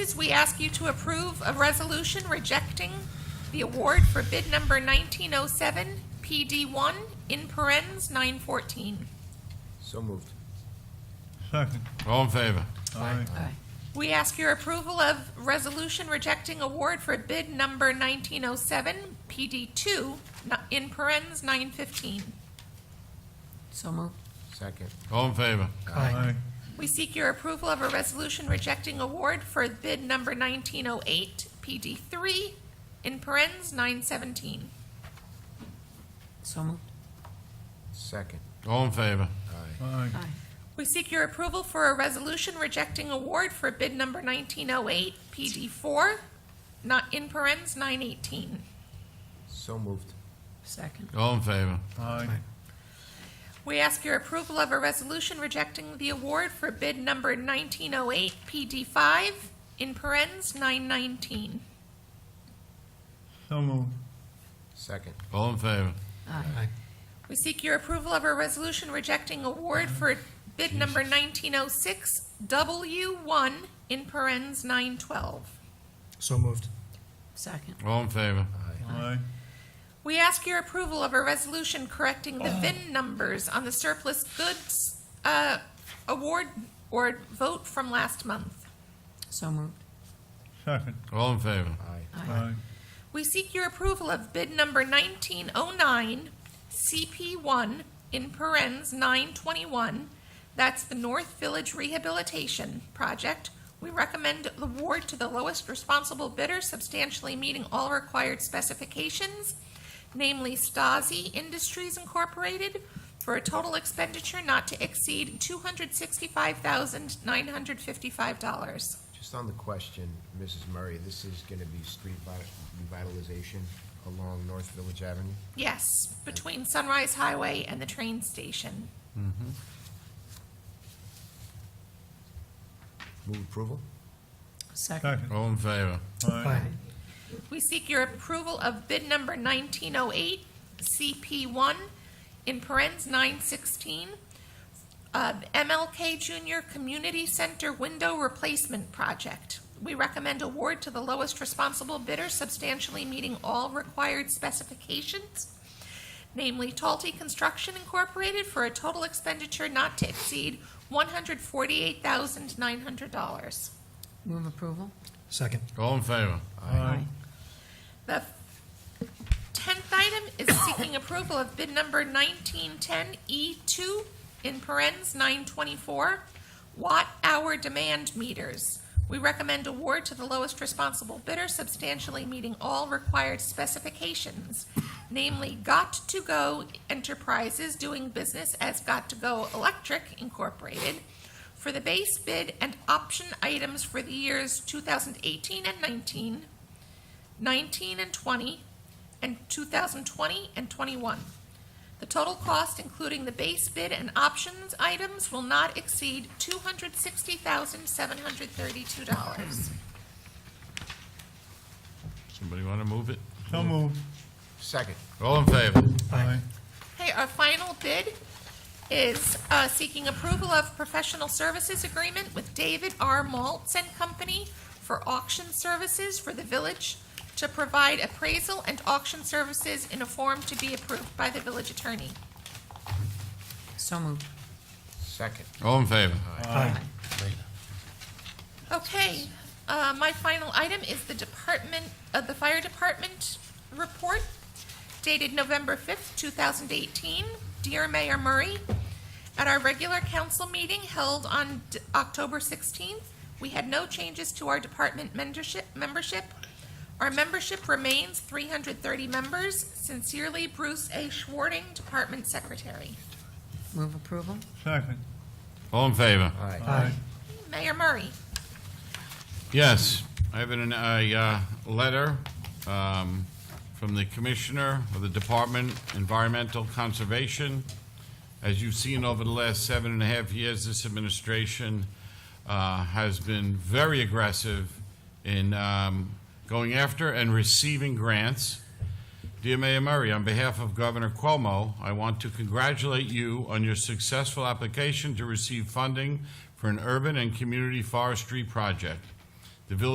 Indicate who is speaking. Speaker 1: Is we ask you to approve a resolution rejecting the award for bid number 1907 PD1 in parens 914.
Speaker 2: So moved.
Speaker 3: Second.
Speaker 4: All in favor?
Speaker 3: Aye.
Speaker 1: We ask your approval of resolution rejecting award for bid number 1907 PD2 n- in parens 915.
Speaker 5: So moved.
Speaker 2: Second.
Speaker 4: All in favor?
Speaker 3: Aye.
Speaker 1: We seek your approval of a resolution rejecting award for bid number 1908 PD3 in parens 917.
Speaker 5: So moved.
Speaker 2: Second.
Speaker 4: All in favor?
Speaker 2: Aye.
Speaker 3: Aye.
Speaker 1: We seek your approval for a resolution rejecting award for bid number 1908, PD4, not in parens 918.
Speaker 2: So moved.
Speaker 5: Second.
Speaker 4: All in favor?
Speaker 3: Aye.
Speaker 1: We ask your approval of a resolution rejecting the award for bid number 1908, PD5, in parens 919.
Speaker 3: So moved.
Speaker 2: Second.
Speaker 4: All in favor?
Speaker 1: We seek your approval of a resolution rejecting award for bid number 1906, W1, in parens 912.
Speaker 6: So moved.
Speaker 5: Second.
Speaker 4: All in favor?
Speaker 3: Aye.
Speaker 1: We ask your approval of a resolution correcting the VIN numbers on the surplus goods uh, award or vote from last month.
Speaker 5: So moved.
Speaker 3: Second.
Speaker 4: All in favor?
Speaker 2: Aye.
Speaker 3: Aye.
Speaker 1: We seek your approval of bid number 1909, CP1, in parens 921. That's the North Village Rehabilitation Project. We recommend the award to the lowest responsible bidder substantially meeting all required specifications, namely Stasi Industries Incorporated, for a total expenditure not to exceed $265,955.
Speaker 2: Just on the question, Mrs. Murray, this is gonna be street vi- revitalization along North Village Avenue?
Speaker 1: Yes, between Sunrise Highway and the train station.
Speaker 2: Move approval?
Speaker 5: Second.
Speaker 3: Second.
Speaker 4: All in favor?
Speaker 3: Aye.
Speaker 1: We seek your approval of bid number 1908, CP1, in parens 916, uh, MLK Junior Community Center Window Replacement Project. We recommend award to the lowest responsible bidder substantially meeting all required specifications, namely Talty Construction Incorporated, for a total expenditure not to exceed $148,900.
Speaker 5: Move approval.
Speaker 6: Second.
Speaker 4: All in favor?
Speaker 3: Aye.
Speaker 1: The tenth item is seeking approval of bid number nineteen ten E two in parens nine twenty-four watt-hour demand meters. We recommend award to the lowest responsible bidder substantially meeting all required specifications, namely Got to Go Enterprises doing business as Got to Go Electric Incorporated for the base bid and option items for the years two thousand eighteen and nineteen, 19 and 20, and 2020 and 21. The total cost, including the base bid and options items, will not exceed $260,732.
Speaker 4: Somebody want to move it?
Speaker 3: So moved.
Speaker 2: Second.
Speaker 4: All in favor?
Speaker 3: Aye.
Speaker 1: Okay, our final bid is uh, seeking approval of professional services agreement with David R. Maltz and Company for auction services for the village to provide appraisal and auction services in a form to be approved by the village attorney.
Speaker 5: So moved.
Speaker 2: Second.
Speaker 4: All in favor?
Speaker 6: Aye.
Speaker 1: Okay, uh, my final item is the department, uh, the fire department report dated November fifth, two thousand eighteen. Dear Mayor Murray, at our regular council meeting held on D- October sixteenth, we had no changes to our department mentorship, membership. Our membership remains three hundred thirty members. Sincerely, Bruce A. Schwarting, Department Secretary.
Speaker 5: Move approval.
Speaker 3: Second.
Speaker 4: All in favor?
Speaker 2: Aye.
Speaker 3: Aye.
Speaker 1: Mayor Murray.
Speaker 4: Yes, I have an, a, uh, letter, um, from the Commissioner of the Department Environmental Conservation. As you've seen over the last seven and a half years, this administration, uh, has been very aggressive in, um, going after and receiving grants. Dear Mayor Murray, on behalf of Governor Cuomo, I want to congratulate you on your successful application to receive funding for an urban and community forestry project.